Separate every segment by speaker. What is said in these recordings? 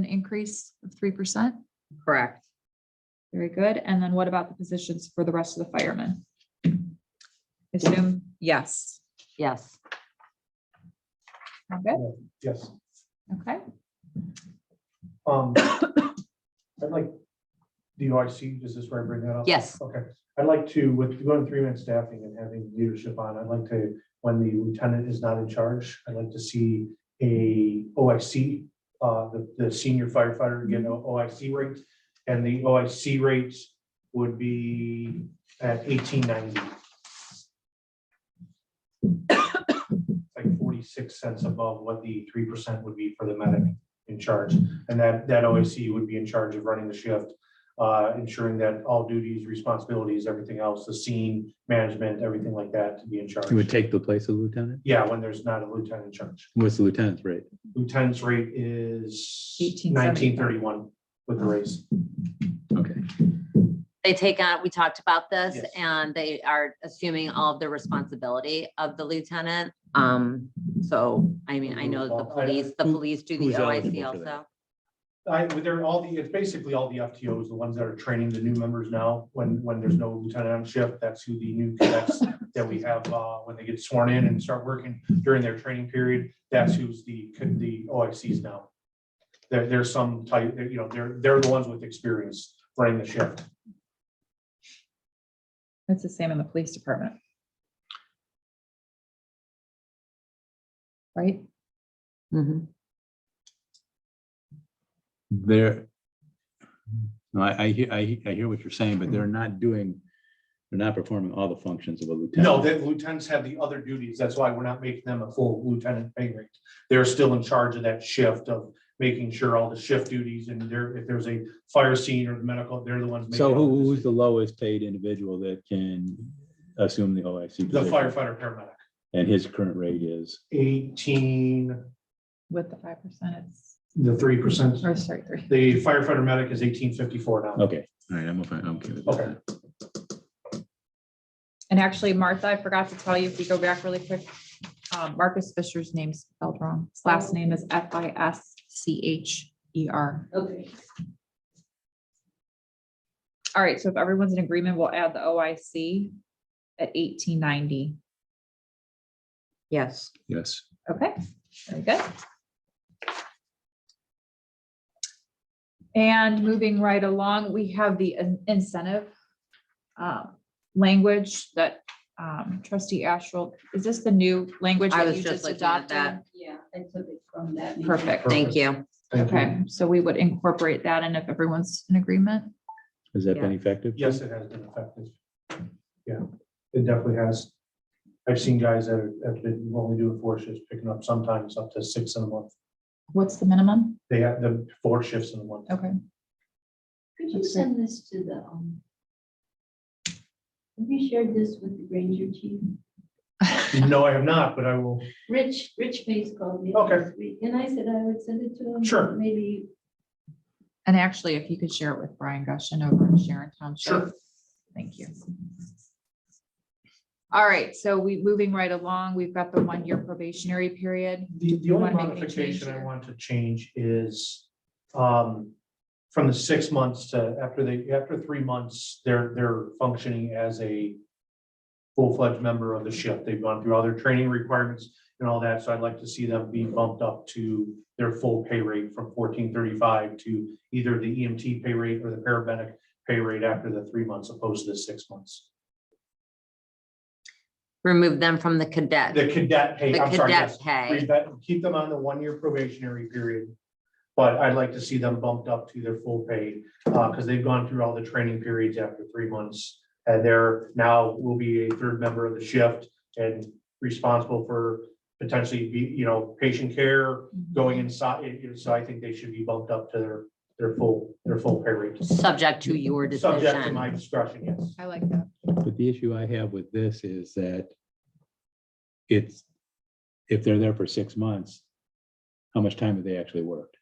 Speaker 1: an increase of three percent.
Speaker 2: Correct.
Speaker 1: Very good. And then what about the positions for the rest of the firemen? Assume, yes.
Speaker 2: Yes.
Speaker 1: Okay,
Speaker 3: Yes.
Speaker 1: okay.
Speaker 3: Um, I'd like, do I see, does this where I bring that up?
Speaker 2: Yes.
Speaker 3: Okay, I'd like to, with going three-man staffing and having leadership on, I'd like to, when the lieutenant is not in charge, I'd like to see a OIC, uh, the, the senior firefighter get an OIC rate, and the OIC rate would be at eighteen ninety. Like forty-six cents above what the three percent would be for the medic in charge. And that, that OAC would be in charge of running the shift, uh, ensuring that all duties, responsibilities, everything else, the scene, management, everything like that to be in charge.
Speaker 4: It would take the place of lieutenant?
Speaker 3: Yeah, when there's not a lieutenant in charge.
Speaker 4: What's the lieutenant's rate?
Speaker 3: Lieutenant's rate is
Speaker 1: 1875.
Speaker 3: nineteen thirty-one with the raise.
Speaker 4: Okay,
Speaker 2: They take on, we talked about this
Speaker 3: Yes.
Speaker 2: and they are assuming all of the responsibility of the lieutenant. Um, so, I mean, I know the
Speaker 3: Well, I-
Speaker 2: police, the
Speaker 4: Who-
Speaker 2: police do the
Speaker 4: who's eligible
Speaker 2: OIC
Speaker 4: for
Speaker 2: also.
Speaker 3: I, they're all the, it's basically all the FTOs, the ones that are training the new members now, when, when there's no lieutenant on shift, that's who the new cadets that we have, uh, when they get sworn in and start working during their training period, that's who's the, the OICs now. There, there's some type, you know, they're, they're the ones with experience running the shift.
Speaker 1: It's the same in the police department. Right?
Speaker 2: Mhm.
Speaker 4: there. No, I, I hear, I, he- I hear what you're saying, but they're not doing, they're not performing all the functions of a lieutenant.
Speaker 3: No, the lieutenants have the other duties. That's why we're not making them a full lieutenant pay rate. They're still in charge of that shift of making sure all the shift duties and there, if there's a fire scene or medical, they're the ones. making
Speaker 4: So
Speaker 3: all
Speaker 4: who,
Speaker 3: the
Speaker 4: who's the lowest paid individual that can assume the OIC?
Speaker 3: The
Speaker 4: position?
Speaker 3: firefighter paramedic,
Speaker 4: And his current rate is,
Speaker 3: eighteen,
Speaker 1: With the five percent, it's,
Speaker 3: the three percent,
Speaker 1: or sorry, three.
Speaker 3: the firefighter medic is eighteen fifty-four now.
Speaker 4: okay, all right, I'm, okay- I'm okay with
Speaker 3: Okay.
Speaker 4: that.
Speaker 1: And actually, Martha, I forgot to tell you, if you go back really quick, um, Marcus Fisher's name's spelled wrong. His last name is F I S C H E R.
Speaker 2: Okay.
Speaker 1: All right, so if everyone's in agreement, we'll add the OIC at eighteen ninety.
Speaker 2: Yes.
Speaker 4: Yes,
Speaker 1: Okay, very good. And moving right along, we have the in- incentive uh, language that um, trustee Astral, is this the new language
Speaker 2: I
Speaker 1: that
Speaker 2: was
Speaker 1: you
Speaker 2: just
Speaker 1: just
Speaker 2: looking at
Speaker 1: adopted?
Speaker 2: that.
Speaker 5: Yeah, I took it from that. meeting.
Speaker 1: Perfect.
Speaker 2: Thank you.
Speaker 3: Thank you.
Speaker 1: Okay, so we would incorporate that and if everyone's in agreement.
Speaker 4: has that been
Speaker 2: Yeah.
Speaker 4: effective?
Speaker 3: Yes, it has been effective. Yeah, it definitely has. I've seen guys that are- have been only doing four shifts, picking up sometimes up to six in a month.
Speaker 1: What's the minimum?
Speaker 3: They have the four shifts in a month.
Speaker 1: Okay,
Speaker 5: Could you
Speaker 1: That's it.
Speaker 5: send this to the, um, have you shared this with the Granger chief?
Speaker 3: No, I have not, but I will.
Speaker 5: Rich, Rich Pace called me.
Speaker 3: Okay.
Speaker 5: this week, And I said I would send it to him.
Speaker 3: Sure.
Speaker 5: Maybe,
Speaker 1: and actually, if you could share it with Brian Gushen over in Sharon Township.
Speaker 3: Sure.
Speaker 1: Thank you. All right, so we, moving right along, we've got the one-year probationary period.
Speaker 3: The, the only
Speaker 1: wanna make any change
Speaker 3: modification I
Speaker 1: here?
Speaker 3: want to change is, um, from the six months to after they, after three months, they're, they're functioning as a full-fledged member of the ship. They've gone through all their training requirements and all that, so I'd like to see them be bumped up to their full pay rate from fourteen thirty-five to either the EMT pay rate or the paramedic pay rate after the three months opposed to the six months.
Speaker 2: Remove them from the cadet,
Speaker 3: The
Speaker 2: the
Speaker 3: cadet pay, I'm sorry, yes.
Speaker 2: cadet pay.
Speaker 3: Leave that, keep them on the one-year probationary period. But I'd like to see them bumped up to their full pay, uh, because they've gone through all the training periods after three months. And they're now will be a third member of the shift and responsible for potentially be, you know, patient care going inside. you know, So I think they should be bumped up to their, their full, their full pay rate.
Speaker 2: Subject to your
Speaker 3: Subject to
Speaker 2: decision.
Speaker 3: my discretion, yes.
Speaker 1: I like that.
Speaker 4: But the issue I have with this is that it's, if they're there for six months, how much time have they actually worked?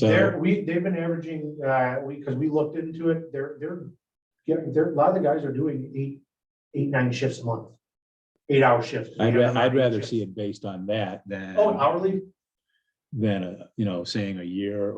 Speaker 3: They're,
Speaker 4: So,
Speaker 3: we, they've been averaging, uh, we, because we looked into it, they're, they're, getting they're, a lot of the guys are doing eight, eight, nine shifts a month. Eight hour shifts.
Speaker 4: I'd,
Speaker 3: We have
Speaker 4: ra-
Speaker 3: them on
Speaker 4: I'd
Speaker 3: eight
Speaker 4: rather
Speaker 3: shifts.
Speaker 4: see it based on that than,
Speaker 3: Oh, hourly?
Speaker 4: than, a you know, saying a year